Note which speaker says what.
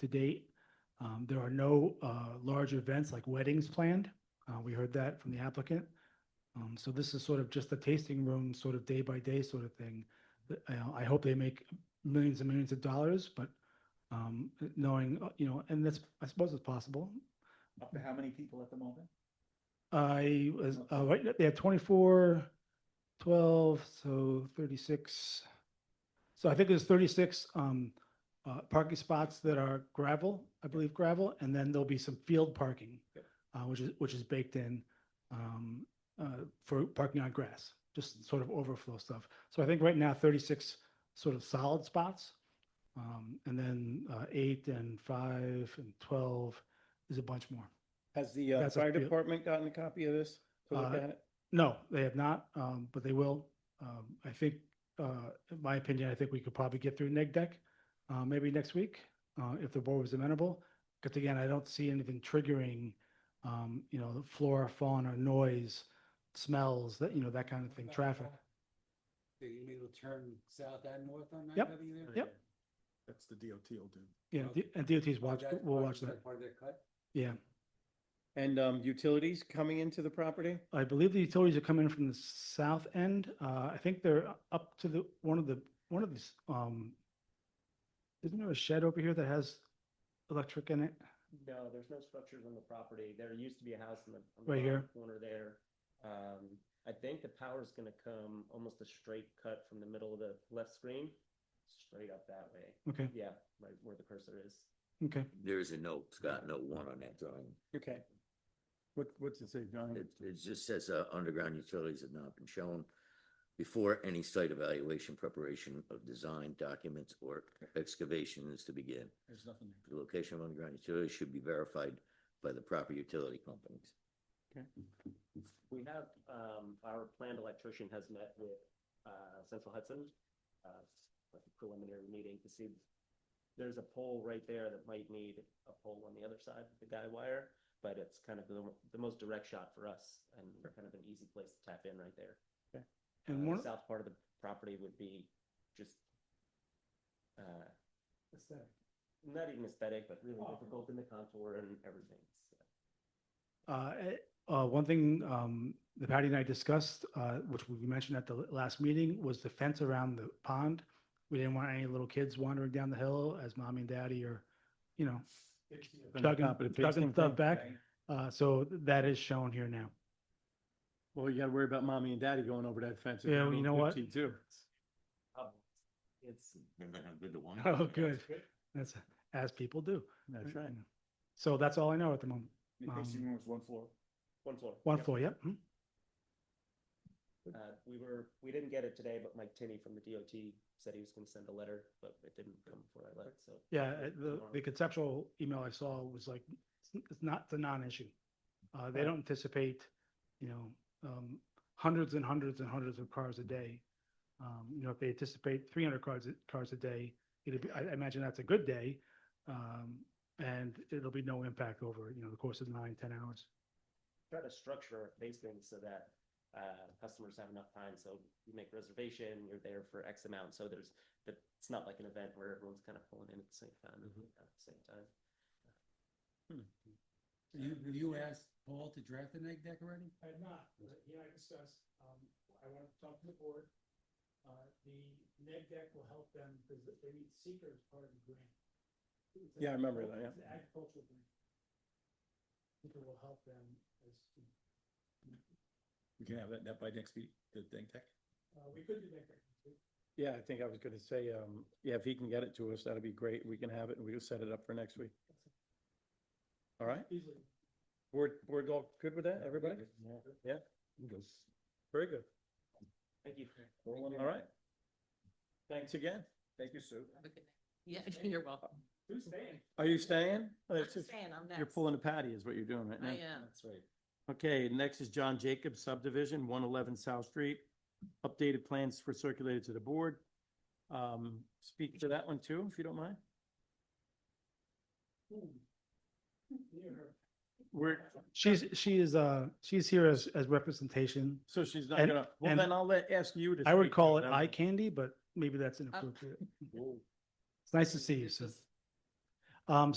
Speaker 1: to date. Um, There are no uh, large events like weddings planned. Uh, We heard that from the applicant. Um, So this is sort of just a tasting room, sort of day by day sort of thing. But, you know, I hope they make millions and millions of dollars, but um, knowing, uh, you know, and that's, I suppose it's possible.
Speaker 2: Up to how many people at the moment?
Speaker 1: I was, uh, right, they had 24, 12, so 36. So I think there's 36 um, uh, parking spots that are gravel, I believe gravel, and then there'll be some field parking,
Speaker 2: Yep.
Speaker 1: uh, which is, which is baked in um, uh, for parking on grass, just sort of overflow stuff. So I think right now 36 sort of solid spots. um, And then uh, eight and five and 12 is a bunch more.
Speaker 2: Has the uh,
Speaker 1: That's a
Speaker 2: fire
Speaker 1: few.
Speaker 2: department gotten a copy of this? to look
Speaker 1: Uh,
Speaker 2: at it?
Speaker 1: No, they have not, um, but they will. Um, I think, uh, in my opinion, I think we could probably get through neg deck, uh, maybe next week, uh, if the board was amenable. Because again, I don't see anything triggering, um, you know, the flora, fauna, noise, smells, that, you know, that kind of thing, traffic.
Speaker 3: So you mean it'll turn south and north on nine
Speaker 1: Yep,
Speaker 3: W there?
Speaker 1: yep.
Speaker 4: That's the DOT will do.
Speaker 1: Yeah,
Speaker 3: Okay.
Speaker 1: D- and DOT's
Speaker 3: Oh,
Speaker 1: watch,
Speaker 3: that's
Speaker 1: we'll
Speaker 3: part-
Speaker 1: watch that,
Speaker 3: that's Part of their cut?
Speaker 1: yeah.
Speaker 2: And um, utilities coming into the property?
Speaker 1: I believe the utilities are coming from the south end. Uh, I think they're up to the, one of the, one of these, um, isn't there a shed over here that has electric in it?
Speaker 5: No, there's no structures on the property. There used to be a house in the. on the
Speaker 1: Right
Speaker 5: bottom
Speaker 1: here.
Speaker 5: Corner there. Um, I think the power's gonna come almost a straight cut from the middle of the left screen, straight up that way.
Speaker 1: Okay,
Speaker 5: Yeah, right where the cursor is.
Speaker 1: okay.
Speaker 6: There is a note, Scott, note one on that drawing.
Speaker 2: Okay. What, what's it say, John?
Speaker 6: It, it just says, uh, underground utilities have not been shown before any site evaluation, preparation of design documents or excavation is to begin.
Speaker 3: There's nothing there.
Speaker 6: The location of underground utilities should be verified by the proper utility companies.
Speaker 5: We have, um, our planned electrician has met with, uh, Central Hudson, uh, like a preliminary meeting to see. There's a pole right there that might need a pole on the other side of the guy wire, but it's kind of the, the most direct shot for us and kind of an easy place to tap in right there.
Speaker 1: And
Speaker 5: Uh,
Speaker 1: one,
Speaker 5: the south part of the property would be just, uh, not even aesthetic, but really difficult in the contour and everything. so.
Speaker 1: uh, eh, uh, one thing, um, that Patty and I discussed, uh, which we mentioned at the l- last meeting, was the fence around the pond. We didn't want any little kids wandering down the hill as mommy and daddy are, you know,
Speaker 2: Top of
Speaker 1: chugging,
Speaker 2: the
Speaker 1: chugging
Speaker 2: tasting
Speaker 1: stuff
Speaker 2: thing?
Speaker 1: back. Uh, so that is shown here now.
Speaker 2: Well, you gotta worry about mommy and daddy going over that fence. if
Speaker 1: Yeah,
Speaker 2: they're
Speaker 1: well, you
Speaker 2: little
Speaker 1: know what?
Speaker 2: kid Too.
Speaker 5: Um, It's,
Speaker 1: Oh, good. That's, as people do.
Speaker 2: That's right.
Speaker 1: So that's all I know at the moment.
Speaker 4: The tasting
Speaker 1: Um,
Speaker 4: room was one floor.
Speaker 5: one floor.
Speaker 1: One
Speaker 5: Yep.
Speaker 1: floor, yep. mhm.
Speaker 5: Uh, we were, we didn't get it today, but Mike Tinney from the DOT said he was gonna send a letter, but it didn't come before I left, so.
Speaker 1: Yeah, uh, the,
Speaker 5: tomorrow.
Speaker 1: the conceptual email I saw was like, it's- it's not, it's a non-issue. Uh, they
Speaker 2: Right.
Speaker 1: don't anticipate, you know, um, hundreds and hundreds and hundreds of cars a day. Um, you know, if they anticipate three hundred cars, a- cars a day, it'd be, I I imagine that's a good day. Um, and it'll be no impact over, you know, the course of nine, ten hours.
Speaker 5: Try to structure our spacing so that, uh, customers have enough time, so you make reservation, you're there for X amount, so there's, that, it's not like an event where everyone's kind of pulling in at the same time, and leaving out at the same time.
Speaker 3: You, you asked Paul to draft the neg deck already?
Speaker 1: I had not, but he and I discussed, um, I want to talk to the board. Uh, the neg deck will help them because they need seekers part of the grant. It's an
Speaker 2: Yeah, I remember
Speaker 1: agricul- It's
Speaker 2: that, yeah.
Speaker 1: an agricultural grant. Seeker will help them as, to-
Speaker 4: We can have that, that by next week, the thing tech.
Speaker 1: uh, we could do neg deck. next week.
Speaker 2: Yeah, I think I was gonna say, um, yeah, if he can get it to us, that'd be great. We can have it and we'll set it up for next week. All right,
Speaker 1: Easily.
Speaker 2: we're, we're all good with that, everybody? Yeah, very good.
Speaker 5: Thank you.
Speaker 2: All right. Thanks again. Thank you, Sue.
Speaker 7: Yeah, you're welcome.
Speaker 1: Who's staying?
Speaker 2: Are you staying? Oh,
Speaker 7: I'm
Speaker 2: that's just-
Speaker 7: staying, I'm next.
Speaker 2: You're pulling a patty is what you're doing right now.
Speaker 7: I am.
Speaker 3: That's right.
Speaker 2: Okay, next is John Jacobs subdivision, one eleven South Street. Updated plans were circulated to the board. Um, speak to that one too, if you don't mind. We're,
Speaker 1: She's, she is, uh, she's here as, as representation.
Speaker 2: so she's not
Speaker 1: And-
Speaker 2: gonna, well,
Speaker 1: and
Speaker 2: then I'll let, ask you to.
Speaker 1: I would
Speaker 2: speak to
Speaker 1: call it
Speaker 2: then.
Speaker 1: eye candy, but maybe that's inappropriate. It's nice to see you, Sue.
Speaker 7: This is-
Speaker 1: Um,